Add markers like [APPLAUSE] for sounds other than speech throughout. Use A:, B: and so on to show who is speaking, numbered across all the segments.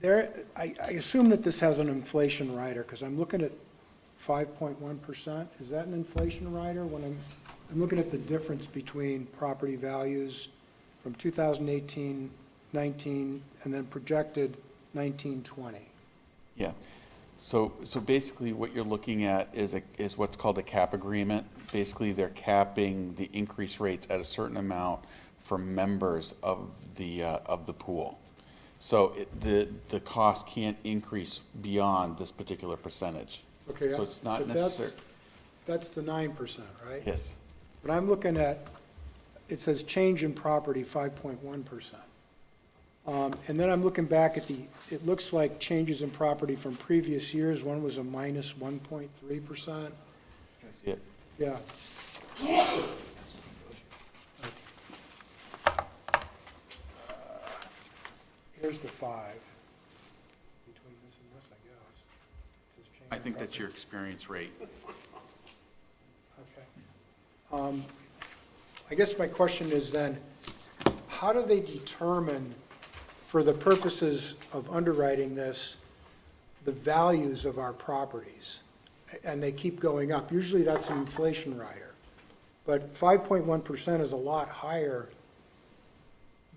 A: There, I, I assume that this has an inflation rider, because I'm looking at five point one percent. Is that an inflation rider? When I'm, I'm looking at the difference between property values from 2018-19, and then projected 19-20.
B: Yeah. So, so basically what you're looking at is a, is what's called a cap agreement. Basically, they're capping the increase rates at a certain amount for members of the, uh, of the pool. So it, the, the cost can't increase beyond this particular percentage.
A: Okay,
B: So it's
A: but
B: not
A: that's-
B: necessary.
A: That's the nine percent, right?
B: Yes.
A: But I'm looking at, it says change in property, five point one percent. Um, and then I'm looking back at the, it looks like changes in property from previous years, one was a minus one point three percent,
B: Can I see it?
A: yeah. Here's the five. Between this and this, I guess. It says change
B: I
A: in
B: think that's
A: property.
B: your experience rate.
A: Okay. Um, I guess my question is then, how do they determine, for the purposes of underwriting this, the values of our properties? And they keep going up. Usually that's an inflation rider. But 5.1% is a lot higher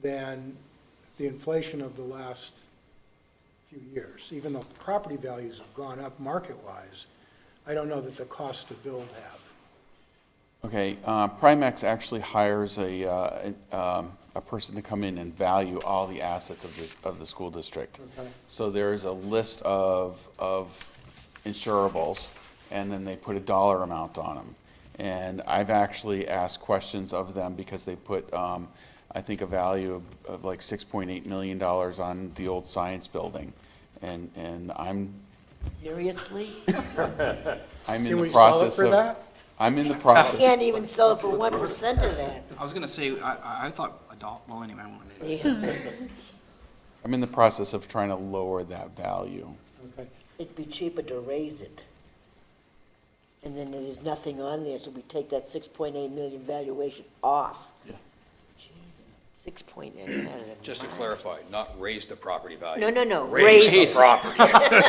A: than the inflation of the last few years, even though property values have gone up market-wise. I don't know that the costs to build have.
B: Okay, uh, Primex actually hires a, uh, a- um, a person to come in and value all the assets of the, of the school district.
A: Okay.
B: So there is a list of, of insurables, and then they put a dollar amount on them. And I've actually asked questions of them because they put, um, I think, a value of- of like six point eight million dollars on the old science building. And, and I'm,
C: [LAUGHS]
D: Seriously?
B: I'm in
A: Can
B: the
A: we sell it
B: process
A: for
B: of.
A: that?
B: I'm in the process.
D: Can't even sell for one percent of that.
C: I was gonna say, I, I- I thought adult, well, anyway, I wanted to.
D: Yeah,
B: I'm in the process of trying to lower that value.
A: Okay.
D: It'd be cheaper to raise it. And then there's nothing on there, so we take that six point eight million valuation off.
B: Yeah.
D: Six point eight.
E: Just to clarify, not raise the property value.
D: No, no, no,
E: Raise
D: raise, [LAUGHS]
E: the property.
C: [LAUGHS]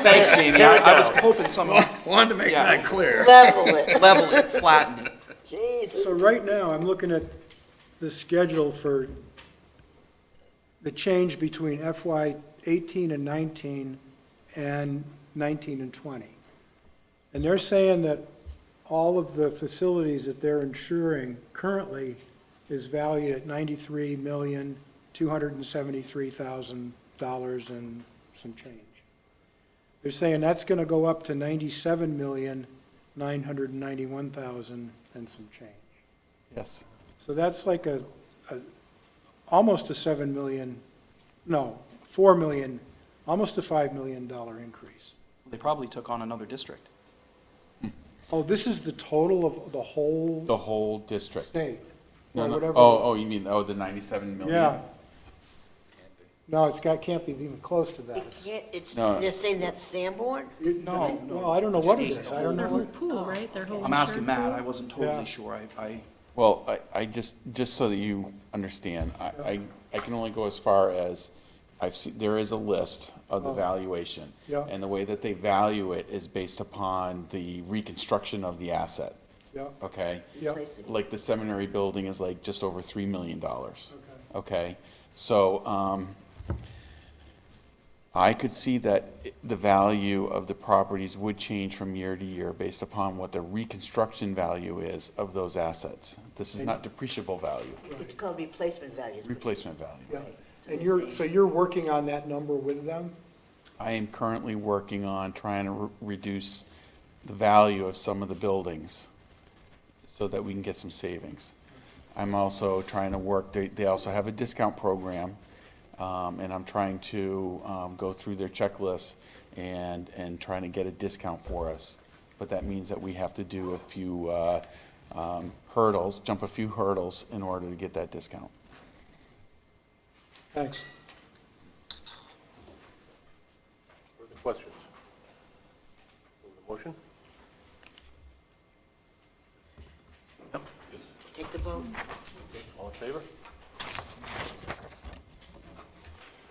C: Thanks, Jamie, I I was hoping someone
E: Wanted to make that clear.
D: level it,
C: [LAUGHS] level it, flatten it.
D: Jesus.
A: So right now, I'm looking at the schedule for the change between FY eighteen and nineteen and nineteen and twenty. And they're saying that all of the facilities that they're insuring currently is valued at ninety-three million, two hundred and seventy-three thousand dollars and some change. They're saying that's gonna go up to ninety-seven million, nine hundred and ninety-one thousand and some change.
B: Yes.
A: So that's like a, a, almost a seven million, no, four million, almost a five million dollar increase.
C: They probably took on another district.
A: Oh, this is the total of the whole
B: The whole district.
A: state,
B: No,
A: or
B: no.
A: whatever.
B: Oh, oh, you mean, oh, the 97 million?
A: Yeah. No, it's got, can't be even close to that.
D: It can't, it's,
B: No.
D: they're saying that's Sanborn?
C: No, no.
A: Well, I don't know what it is. I
F: It's
A: don't
F: their whole
A: know.
F: pool, right? Their whole.
C: I'm asking
F: insurance
C: Matt,
F: pool?
C: I wasn't
A: Yeah.
C: totally sure, I, I,
B: Well, I, I just, just so that you understand, I, I, I can only go as far as, I've seen, there is a list of the valuation.
A: Oh. Yeah.
B: And the way that they value it is based upon the reconstruction of the asset,
A: Yeah,
B: okay?
A: yeah,
B: Like the seminary building is like just over $3 million. Okay, so, um, I could see that i- the value of the properties would change from year to year based upon what the reconstruction value is of those assets. This is not depreciable value,
D: It's called replacement values.
B: replacement value.
A: yeah. And you're, so you're working on that number with them?
B: I am currently working on trying to re- reduce the value of some of the buildings so that we can get some savings. I'm also trying to work, they, they also have a discount program, um, and I'm trying to, um, go through their checklist and, and trying to get a discount for us. But that means that we have to do a few, uh, um, hurdles, jump a few hurdles in order to get that discount.
A: Thanks.
G: Further questions? Move the motion?
D: Take the vote.
G: All in favor?